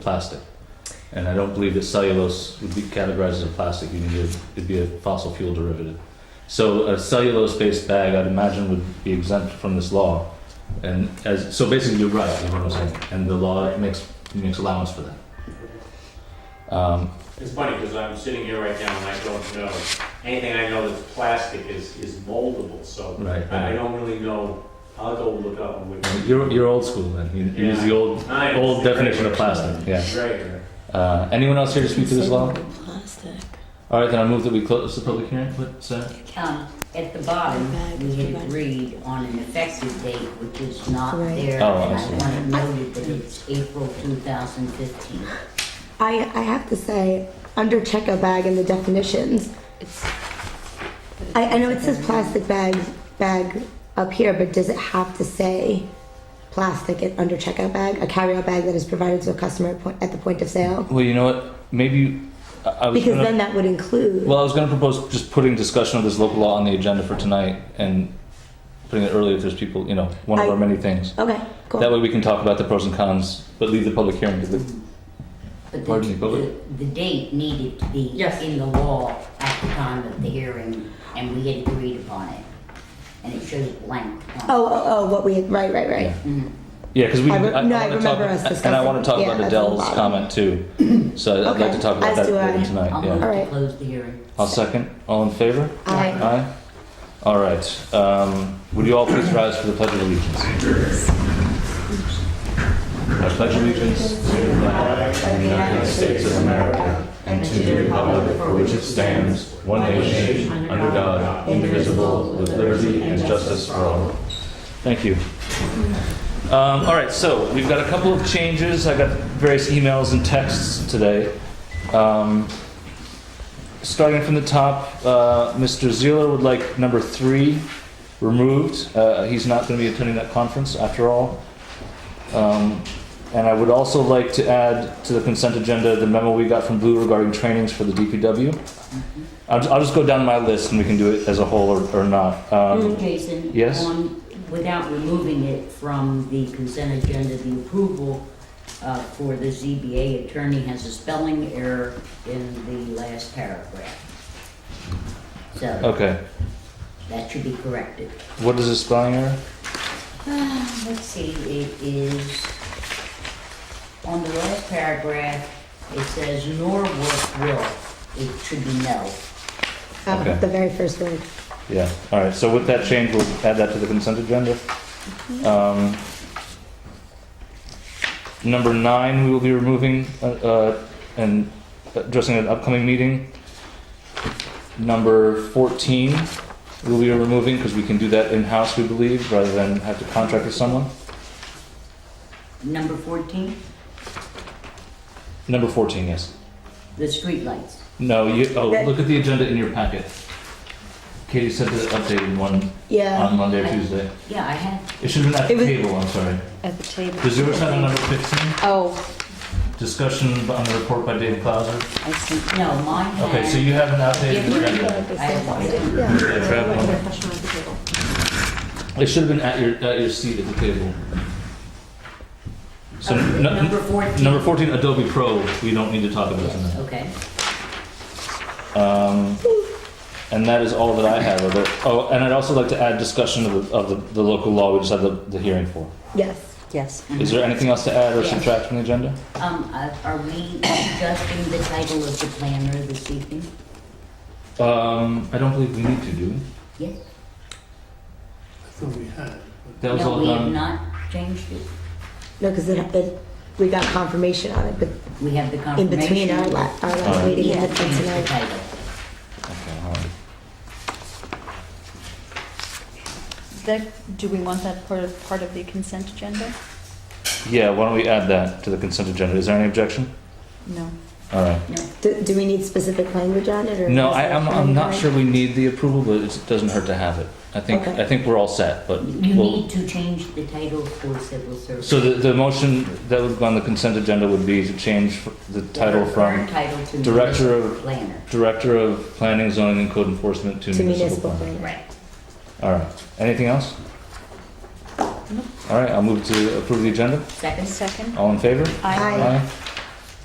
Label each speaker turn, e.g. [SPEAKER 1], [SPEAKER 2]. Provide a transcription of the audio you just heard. [SPEAKER 1] plastic. And I don't believe that cellulose would be categorized as a plastic. You need a, it'd be a fossil fuel derivative. So a cellulose-based bag, I'd imagine, would be exempt from this law. And as so, basically, you're right. Is what I'm saying. And the law makes makes allowance for that. Um,
[SPEAKER 2] It's funny, because I'm sitting here right now and I don't know, anything I know that's plastic is, is moldable, so
[SPEAKER 1] right.
[SPEAKER 2] I I don't really know, I'll go look up and
[SPEAKER 1] And
[SPEAKER 2] we.
[SPEAKER 1] You're you're old school then. You, you use the old
[SPEAKER 2] I-
[SPEAKER 1] old definition of plastic. Yeah.
[SPEAKER 2] Right here.
[SPEAKER 1] Uh, anyone else here to speak to this law?
[SPEAKER 3] Plastic.
[SPEAKER 1] All right, then I move that we close the public hearing. uh, What, Sarah?
[SPEAKER 4] Um, at the bottom, we had agreed on an effective date, which is not
[SPEAKER 3] Right.
[SPEAKER 4] there.
[SPEAKER 1] Oh, I
[SPEAKER 4] and
[SPEAKER 1] see.
[SPEAKER 4] I wanna note that it's April two thousand fifteen.
[SPEAKER 3] I, I have to say, under checkout bag in the definitions, I, I know it says plastic bag, bag up here, but does it have to say plastic at, under checkout bag? A carryout bag that is provided to a customer at, point, at the point of sale?
[SPEAKER 1] Well, you know what? Maybe you- I, I was
[SPEAKER 3] Because
[SPEAKER 1] gonna,
[SPEAKER 3] then that would include.
[SPEAKER 1] well, I was going to propose just putting discussion of this local law on the agenda for tonight and putting it early if there's people. You know, one of
[SPEAKER 3] I- Oh.
[SPEAKER 1] our many things.
[SPEAKER 3] okay, cool.
[SPEAKER 1] That way we can talk about the pros and cons, but leave the public hearing to the.
[SPEAKER 4] But the,
[SPEAKER 1] Pardon me, Bobby?
[SPEAKER 4] the, the date needed to be
[SPEAKER 5] Yes.
[SPEAKER 4] in the law at the time of the hearing, and we had agreed upon it. And it shows blank. on it.
[SPEAKER 3] oh, oh, oh, what we, right, right, right.
[SPEAKER 1] Yeah.
[SPEAKER 4] Mhm.
[SPEAKER 1] Yeah, because we.
[SPEAKER 3] I re- no, I
[SPEAKER 1] wanna
[SPEAKER 3] remember
[SPEAKER 1] talk,
[SPEAKER 3] us
[SPEAKER 1] And I want to
[SPEAKER 3] discussing-
[SPEAKER 1] talk about
[SPEAKER 3] yeah, that's on the
[SPEAKER 1] Adele's
[SPEAKER 3] bottom.
[SPEAKER 1] comment too. So I'd like to
[SPEAKER 3] Okay,
[SPEAKER 1] talk about
[SPEAKER 3] as
[SPEAKER 1] that
[SPEAKER 3] do I.
[SPEAKER 1] later tonight.
[SPEAKER 4] I'll
[SPEAKER 1] yeah.
[SPEAKER 4] move to
[SPEAKER 3] Alright.
[SPEAKER 4] close the hearing.
[SPEAKER 1] I'll second. All in favor?
[SPEAKER 3] Aye.
[SPEAKER 1] Aye. All right. Um, would you all please rise for the Pledge of Allegiance? I pledge allegiance to the flag of the United States of America and to the republic for which it stands, one nation, under God, indivisible, with liberty and justice for all. Thank you. Um, all right, so we've got a couple of changes. I got various emails and texts today. Um, starting from the top, uh, Mr. Zeeler would like number three removed. Uh, he's not going to be attending that conference after all. Um, and I would also like to add to the consent agenda the memo we got from Blue regarding trainings for the DPW. I'll, ju- I'll just go down my list and we can do it as a whole or, or not. Um,
[SPEAKER 4] Jason?
[SPEAKER 1] yes?
[SPEAKER 4] on- Without removing it from the consent agenda, the approval uh, for the ZBA attorney has a spelling error in the last paragraph. So
[SPEAKER 1] okay.
[SPEAKER 4] that should be corrected.
[SPEAKER 1] What is the spelling error?
[SPEAKER 4] Uh, Let's see, it is, on the last paragraph, it says nor work will. It should be no.
[SPEAKER 3] Uh,
[SPEAKER 1] Okay.
[SPEAKER 3] The very first word.
[SPEAKER 1] Yeah, all right, so with that change, we'll add that to the consent agenda. Um, Number nine, we will be removing uh, uh, and addressing at an upcoming meeting. Number 14, we'll be removing because we can do that in-house, we believe, rather than have to contract with someone.
[SPEAKER 4] Number 14,
[SPEAKER 1] Number 14, yes.
[SPEAKER 4] the streetlights.
[SPEAKER 1] No, you, oh,
[SPEAKER 3] That-
[SPEAKER 1] look at the agenda in your packet. Katie sent the updated one
[SPEAKER 3] Yeah.
[SPEAKER 1] on Monday or Tuesday.
[SPEAKER 4] Yeah, I had
[SPEAKER 1] It should have been at
[SPEAKER 3] It
[SPEAKER 1] the
[SPEAKER 3] was-
[SPEAKER 1] table, I'm sorry.
[SPEAKER 6] at the table.
[SPEAKER 1] Does yours have a number 15?
[SPEAKER 6] Oh,
[SPEAKER 1] Discussion on the report by David Clauser.
[SPEAKER 6] I see.
[SPEAKER 4] No, mine had.
[SPEAKER 1] Okay, so you have an
[SPEAKER 4] Yeah,
[SPEAKER 1] outdated
[SPEAKER 4] you
[SPEAKER 1] agenda.
[SPEAKER 4] I have one.
[SPEAKER 3] Yeah.
[SPEAKER 1] Yeah, grab one. It should have been at your, at your seat at the table. So,
[SPEAKER 4] Okay,
[SPEAKER 1] n-
[SPEAKER 4] Number
[SPEAKER 1] n-
[SPEAKER 4] fourteen.
[SPEAKER 1] number fourteen, Adobe Pro, we don't need to talk about
[SPEAKER 4] Yes,
[SPEAKER 1] tonight.
[SPEAKER 4] okay.
[SPEAKER 1] Um, and that is all that I have of it. Oh, and I'd also like to add discussion of, the- of the, the local law we just had the, the hearing for.
[SPEAKER 3] Yes.
[SPEAKER 6] Yes.
[SPEAKER 1] Is there anything else to add or
[SPEAKER 4] Yes.
[SPEAKER 1] subtract from the agenda?
[SPEAKER 4] Um, uh, are we adjusting the title of the planner this evening?
[SPEAKER 1] Um, I don't believe we need to do.
[SPEAKER 4] Yes?
[SPEAKER 7] thought we had.
[SPEAKER 1] That was
[SPEAKER 4] No,
[SPEAKER 1] all
[SPEAKER 4] we have
[SPEAKER 1] done.
[SPEAKER 4] not changed it.
[SPEAKER 3] No, because it, it, we got confirmation on it, but
[SPEAKER 4] We have the
[SPEAKER 3] in
[SPEAKER 4] confirmation. Uh,
[SPEAKER 3] between our, la- our last
[SPEAKER 1] Alright.
[SPEAKER 3] meeting
[SPEAKER 4] Yeah,
[SPEAKER 3] and
[SPEAKER 4] change the
[SPEAKER 3] tonight.
[SPEAKER 4] title.
[SPEAKER 1] Okay, all right.
[SPEAKER 6] That, do we want that part of, part of the consent agenda?
[SPEAKER 1] Yeah, why don't we add that to the consent agenda? Is there any objection?
[SPEAKER 6] No.
[SPEAKER 1] All right.
[SPEAKER 3] Do, do we need specific language on it or?
[SPEAKER 1] No,
[SPEAKER 3] is
[SPEAKER 1] I,
[SPEAKER 3] it
[SPEAKER 1] I'm, I'm
[SPEAKER 3] fine?
[SPEAKER 1] not sure we need the approval, but it's- it doesn't hurt to have it. I think,
[SPEAKER 3] Okay.
[SPEAKER 1] I think we're all set, but
[SPEAKER 4] You
[SPEAKER 1] we'll,
[SPEAKER 4] need to change the title for civil service.
[SPEAKER 1] so the, the motion that would go on the consent agenda would be to change f- the title from
[SPEAKER 4] Current title to
[SPEAKER 1] Director of-
[SPEAKER 4] municipal planner.
[SPEAKER 1] Director of Planning, Zoning and Code Enforcement to
[SPEAKER 3] To
[SPEAKER 1] Municipal
[SPEAKER 3] municipal
[SPEAKER 1] Planning.
[SPEAKER 3] planning.
[SPEAKER 4] Right.
[SPEAKER 1] All right. Anything else?
[SPEAKER 6] Nope.
[SPEAKER 1] All right, I'll move to approve the agenda.
[SPEAKER 4] Second?
[SPEAKER 6] Second?
[SPEAKER 1] All in favor?
[SPEAKER 3] Aye.
[SPEAKER 1] Aye.